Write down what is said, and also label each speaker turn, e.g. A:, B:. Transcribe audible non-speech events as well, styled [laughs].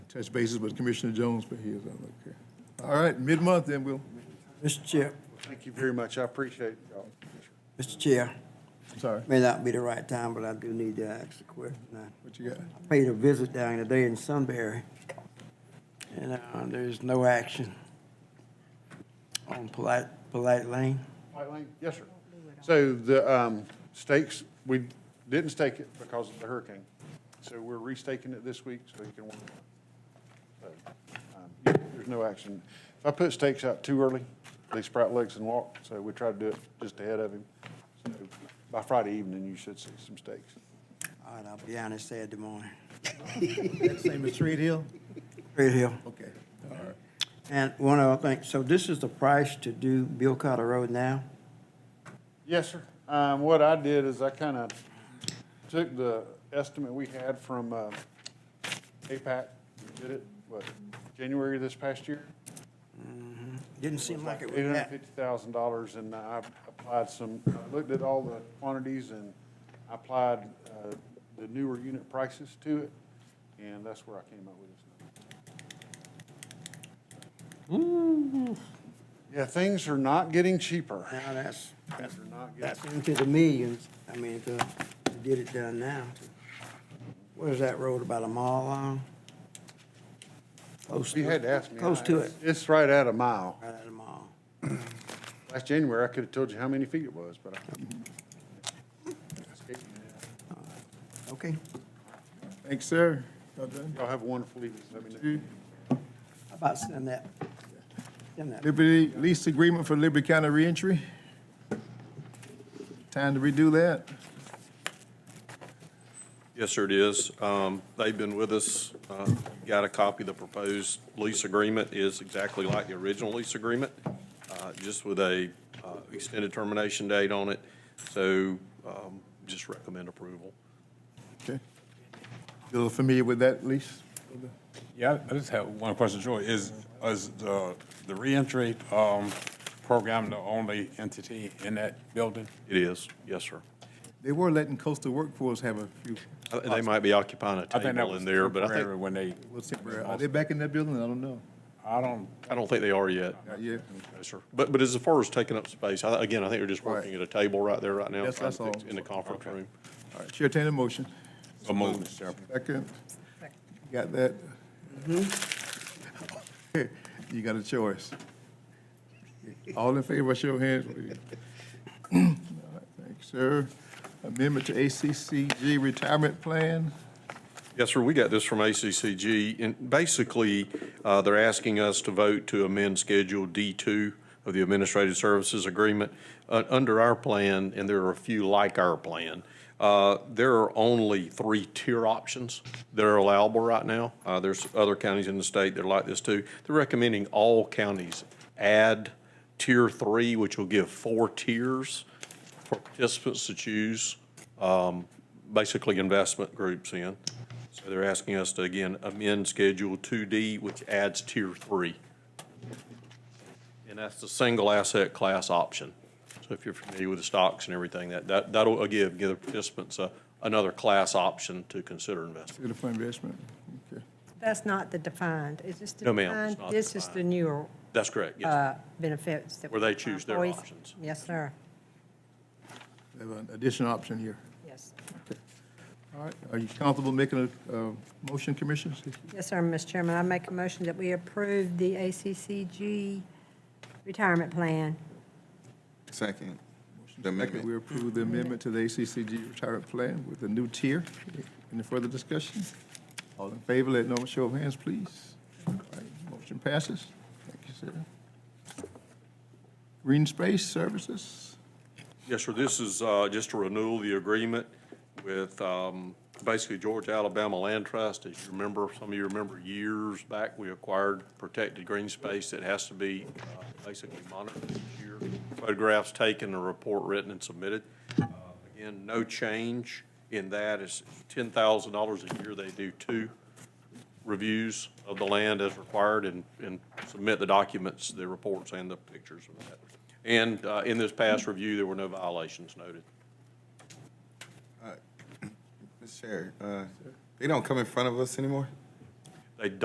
A: touch bases with Commissioner Jones, but he is on, okay. All right, mid-month then, we'll,
B: Mr. Chair,
C: Thank you very much. I appreciate y'all.
B: Mr. Chair,
A: I'm sorry,
B: may not be the right time, but I do need to ask a question. I
A: what you got?
B: paid a visit down today in Sunbury, and uh, there's no action on polite, polite lane.
C: White Lane? Yes, sir. So the um, stakes, we didn't stake it because of the hurricane. So we're restaking it this week so you can. work. So, um, yeah, There's no action. If I put stakes out too early, they sprout legs and walk. So we try to do it just ahead of him. So By Friday evening, you should see some stakes.
B: All right, I'll be down there Saturday morning.
A: Same as Reed Hill?
B: Right here.
A: Okay, all right.
B: And one other thing, so this is the price to do Bill Carter Road now?
C: Yes, sir. Um, what I did is I kind of took the estimate we had from, uh, APAC, did it, what, January this past year?
B: Didn't seem like it
C: Eight
B: was
C: hundred
B: that.
C: fifty thousand dollars, and I applied some, I looked at all the quantities and I applied, uh, the newer unit prices to it, and that's where I came up with this number. Yeah, things are not getting cheaper.
B: Now, that's,
C: Things are not getting
B: that's into the millions. I mean, if uh, you get it done now. What is that road, about a mile long? Close
C: You
B: to
C: had
B: it.
C: to ask me.
B: Close to it,
C: It's right at a mile.
B: right at a mile.
C: Last January, I could have told you how many feet it was, but I. Escaped me now.
B: Okay.
A: Thanks, sir. Y'all done?
C: Y'all have a wonderful evening. Let me know.
A: You-
B: How about send that? Send that.
A: Liberty lease agreement for Liberty County reentry. Time to redo that.
D: Yes, sir, it is. Um, They've been with us, uh, got a copy. The proposed lease agreement is exactly like the original lease agreement, uh, just with a uh, extended termination date on it. So um, just recommend approval.
A: Okay. You a little familiar with that lease?
E: Yeah, I just have one question, Joy. Is, is the, the reentry, um, program the only entity in that building?
D: It is, yes, sir.
A: They were letting coastal workforce have a few,
D: I think They might be occupying a
E: I think that
D: table
E: was
D: in there, but I
E: temporary
D: think,
E: When they,
A: little temporary. Are they back in that building? I don't know.
E: I don't,
D: I don't think they are yet.
A: Not yet.
D: No, sir. But, but as far as taking up space, I- again, I think they're just working at a table right there right now.
A: Yes,
D: trying
A: that's
D: to fix-
A: all.
D: In the conference room.
A: All right, Chair, entertain a motion.
E: a move, Mr. Chairman.
A: Second. Got that? [laughs] You got a choice. All in favor, show your hands. please. All right, Thanks, sir. Amendment to ACCG retirement plan.
D: Yes, sir, we got this from ACCG, and basically, uh, they're asking us to vote to amend Schedule D2 of the Administrative Services Agreement. Uh, Under our plan, and there are a few like our plan, uh, there are only three tier options that are allowable right now. Uh, There's other counties in the state that are like this too. They're recommending all counties add Tier 3, which will give four tiers for participants to choose, um, basically investment groups in. So they're asking us to, again, amend Schedule 2D, which adds Tier 3. And that's the single asset class option. So if you're familiar with the stocks and everything, that, that, that'll, again, give the participants a, another class option to consider investing.
A: Beautiful investment. Okay.
F: That's not the defined, is this the
D: No, ma'am, it's
F: defined?
D: not
F: This is the
D: defined.
F: newer
D: That's correct, yes.
F: uh, benefits that.
D: Where
F: we
D: they
F: apply
D: choose their
F: for.
D: options.
F: Yes, sir,
A: They have an additional option here.
F: yes.
A: All right, are you comfortable making a, uh motion, Commissioners?
F: Yes, sir, Mr. Chairman, I make a motion that we approve the ACCG retirement plan.
G: Second. The
A: Second,
G: amendment.
A: we approve the amendment to the ACCG retirement plan with a new tier. Any further discussion? All in favor, let normal show of hands, please. All right, Motion passes. Thank you, sir. Green Space Services,
D: Yes, sir. This is uh, just a renewal of the agreement with um, basically Georgia Alabama Land Trust. As you remember, some of you remember years back, we acquired protected green space that has to be uh, basically monitored each year. Photographs taken, a report written and submitted. Uh, Again, no change in that. It's $10,000 a year. They do two reviews of the land as required and, and submit the documents, the reports and the pictures of that. And, uh, in this past review, there were no violations noted.
G: Mr. Chair, uh, they don't come in front of us anymore?